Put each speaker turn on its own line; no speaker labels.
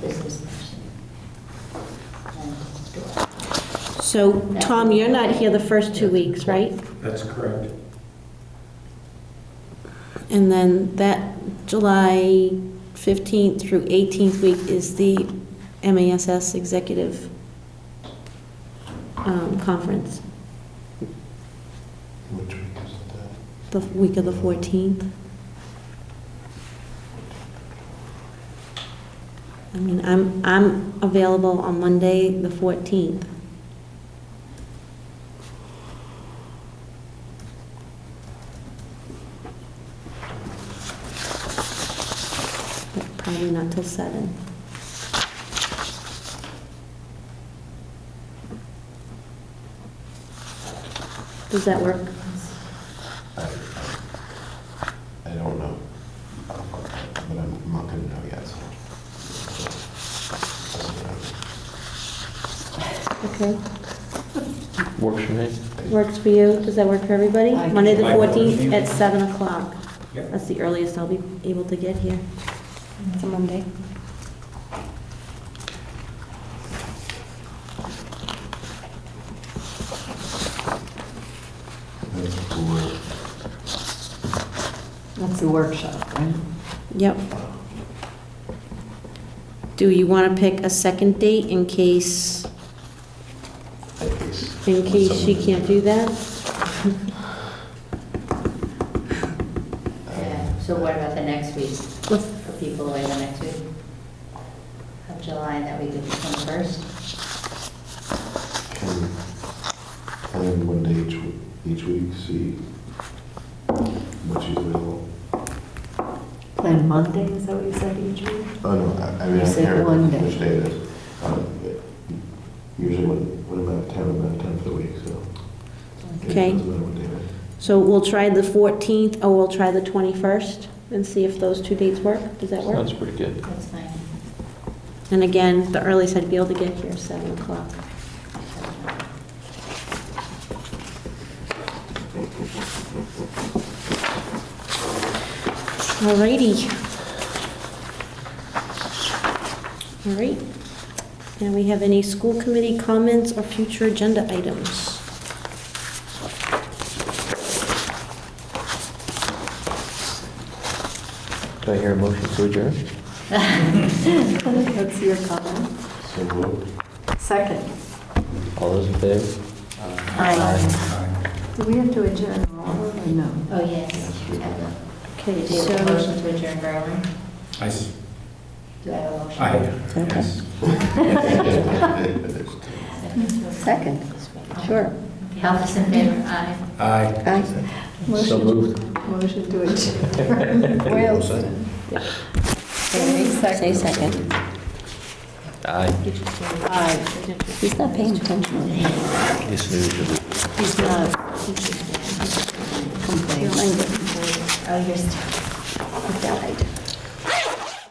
business person. And do it.
So, Tom, you're not here the first two weeks, right?
That's correct.
And then that July 15th through 18th week is the MASs Executive um, Conference,
Which week is it
the week of the 14th. I mean, I'm, I'm available on Monday, the 14th. But Probably not till seven. Does that work?
at? I I don't know. But I'm not gonna know yet, so.
Okay,
Works for me.
works for you, does that work for everybody?
I-
Monday the
I can-
14th at 7 o'clock.
Yep.
That's the earliest I'll be able to get here. It's a Monday.
That's cool.
That's the workshop, right?
Yep. Do you want to pick a second date in case,
In case.
in case she
someone-
can't do that?
Yeah, so what about the next week? For people away the next week? Of July, that we could come first?
Can, plan one day each, w- each week, see what she's available.
Plan Monday, is that what you said each week?
Oh, no, I, I mean,
You
I
said
care
one day.
which day it is. Uh, Usually when, when I'm out of town, I'm out of town for the week, so. it
Okay.
doesn't matter what day it is.
So we'll try the 14th, or we'll try the 21st, and see if those two dates work. Does that work?
Sounds pretty good.
That's fine.
And again, the earliest I'd be able to get here is 7 o'clock. Alrighty. All right. Now we have any school committee comments or future agenda items?
Do I hear a motion to adjourn?
That's your comment.
So moved.
Second,
All those in favor?
do we have to adjourn all or no?
Oh, yes.
Okay,
Do you have a
so,
motion to adjourn, Berlin?
I, s-
Do I have a motion?
I,
Okay.
yes.
Second,
sure.
Half is in favor, aye.
I.
So moved.
Motion to adjourn. Wilson.
Say second.
Aye.
Aye.
He's not paying attention.
You snoozed it.
He's not complaining.
Oh, you're still. Died.